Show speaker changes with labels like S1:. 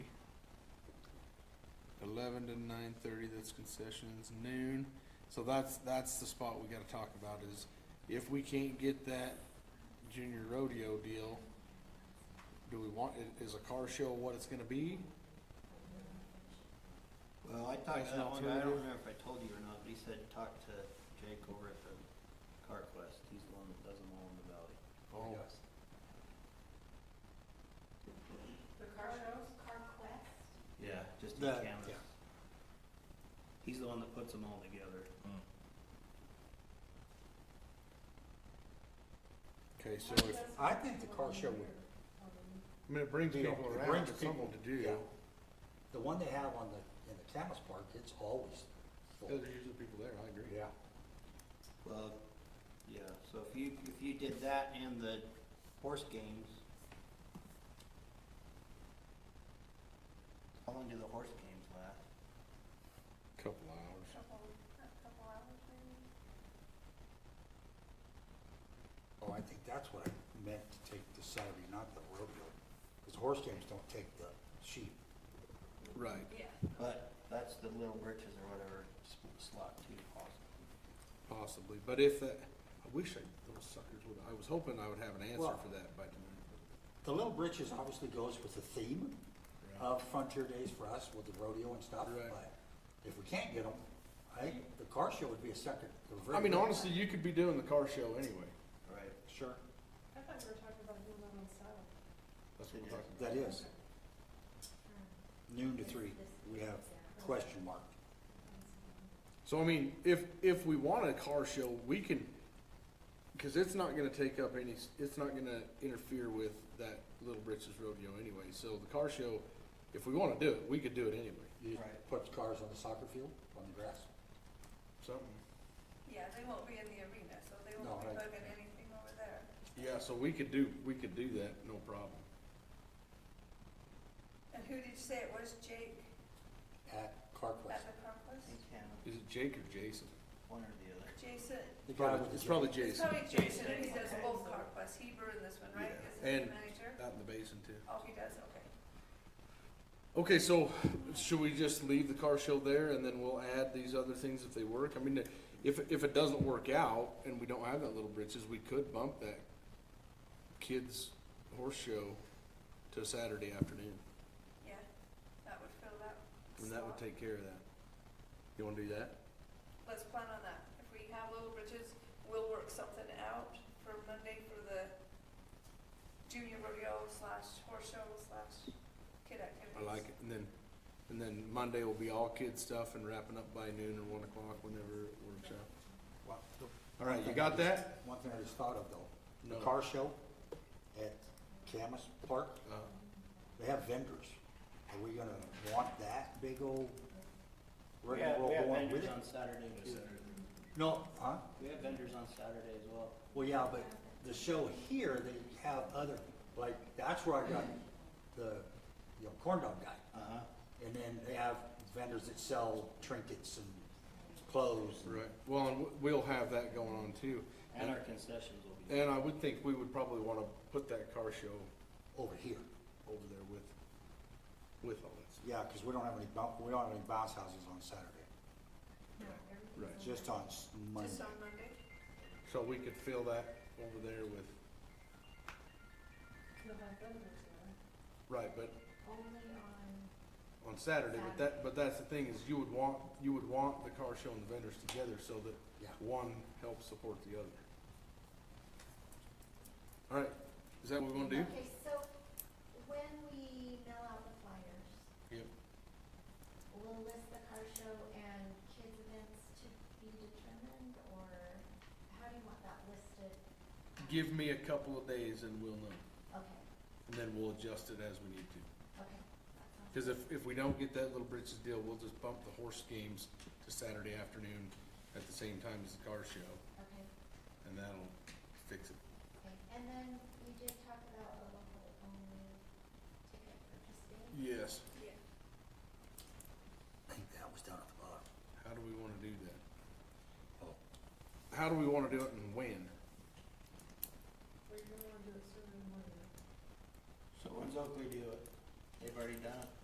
S1: eleven to nine thirty, that's concessions, noon. So that's, that's the spot we gotta talk about is if we can't get that junior rodeo deal, do we want, i- is a car show what it's gonna be?
S2: Well, I talked
S1: There's
S2: to
S1: an
S2: Uh, that one guy, I
S1: alternative.
S2: don't remember if I told you or not, but he said, talk to Jake over at the CarQuest, he's the one that does them all in the valley.
S1: Oh.
S3: The car shows? Car quest?
S2: Yeah, just in
S4: That-
S2: Camas.
S4: yeah.
S2: He's the one that puts them all together.
S1: Okay, so if,
S4: I think the car show would,
S1: I mean, it brings
S4: Deal.
S1: people
S4: It
S1: around,
S4: brings
S1: it's something
S4: people,
S1: to do.
S4: yeah. the one they have on the, in the Camus Park, it's always
S1: There's
S4: full.
S1: usually people there, I agree.
S4: Yeah.
S2: Well, yeah, so if you, if you did that and the horse games. How long do the horse games last?
S1: Couple hours.
S3: Couple, a couple hours maybe?
S4: Oh, I think that's what I meant to take the Saturday, not the rodeo, because horse games don't take the sheep.
S1: Right.
S3: Yeah.
S2: But that's the little riches or whatever sp- slot too possible.
S1: Possibly, but if that, I wish I, those suckers would, I was hoping I would have an answer
S4: Well-
S1: for that by tonight.
S4: The Little Britches obviously goes with the theme
S1: Yeah.
S4: of Frontier Days for us with the rodeo and stuff,
S1: Right.
S4: but if we can't get them, I think the car show would be a second. a very
S1: I mean,
S4: good-
S1: honestly, you could be doing the car show anyway.
S2: Right.
S4: Sure,
S3: I thought we were talking about doing that on Saturday.
S1: That's what we're talking about.
S4: that is. Noon to three, we have question mark.
S1: So I mean, if, if we want a car show, we can, cause it's not gonna take up any, s- it's not gonna interfere with that Little Britches rodeo anyway. So the car show, if we wanna do it, we could do it anyway.
S4: You
S2: Right.
S4: put cars on the soccer field, on the grass.
S1: Something.
S3: Yeah, they won't be in the arena, so they
S4: No,
S3: won't be
S4: right.
S3: bugging anything over there.
S1: Yeah, so we could do, we could do that, no problem.
S3: And who did you say it was? Jake
S4: at
S3: at
S4: CarQuest.
S3: the car quest?
S2: In Canada,
S1: Is it Jake or Jason?
S2: one or the other.
S3: Jason?
S4: The guy
S1: Probably,
S4: with the
S1: it's probably
S3: It's
S1: Jason,
S3: probably Jason,
S2: Jason.
S3: he does
S2: Okay.
S3: both car quests. He ruined this one, right?
S1: Yeah.
S3: Is he the
S1: And-
S3: manager?
S1: out in the basin too.
S3: Oh, he does, okay.
S1: Okay, so should we just leave the car show there and then we'll add these other things if they work? I mean, if, if it doesn't work out and we don't have that little britches, we could bump that kids horse show to Saturday afternoon.
S3: Yeah, that would fill that
S1: And that would
S3: slot.
S1: take care of that. You wanna do that?
S3: Let's plan on that. If we have Little Bridges, we'll work something out for Monday for the junior rodeo slash horse show slash kid activities.
S1: I like it. And then, and then Monday will be all kid stuff and wrapping up by noon or one o'clock whenever it works out.
S4: Well, the-
S1: All right, you got that?
S4: One thing I just thought of though, the
S1: No.
S4: car show at Camus Park,
S1: Uh,
S4: they have vendors. Are we gonna want that big old
S2: We
S4: rig and
S2: have,
S4: roll
S2: we have
S4: going with
S2: vendors
S4: it?
S2: on Saturday too.
S4: No, huh?
S2: We have vendors on Saturday as well.
S4: Well, yeah, but the show here, they have other, like, that's where I got the, you know, corn dog guy.
S2: Uh-huh.
S4: And then they have vendors that sell trinkets and clothes.
S1: right. Well, and w- we'll have that going on too.
S2: And our concessions will be.
S1: And I would think we would probably wanna put that car show
S4: Over here.
S1: over there with, with all that stuff.
S4: Yeah, because we don't have any, bou- we don't have any bounce houses on Saturday,
S1: Right.
S4: just on s- Monday.
S3: Just on Monday?
S1: So we could fill that over there with, right, but
S5: Only on,
S1: on Saturday, but that, but that's the thing is you would want, you would want the car show and the vendors together so that
S4: Yeah.
S1: one helps support the other. All right, is that what we wanna do?
S5: okay, so when we mail out the flyers,
S1: Yep.
S5: we'll list the car show and kids events to be determined, or how do you want that listed?
S1: Give me a couple of days and we'll know,
S5: Okay,
S1: and then we'll adjust it as we need to.
S5: okay, that sounds.
S1: Because if, if we don't get that Little Britches deal, we'll just bump the horse games to Saturday afternoon at the same time as the car show,
S5: Okay,
S1: and that'll fix it.
S5: okay, and then we did talk about a local only ticket purchasing.
S1: Yes.
S3: Yeah.
S4: I think that was down at the bottom.
S1: How do we wanna do that?
S4: Oh.
S1: How do we wanna do it and when?
S2: So when's Oakley do it? They've already done it.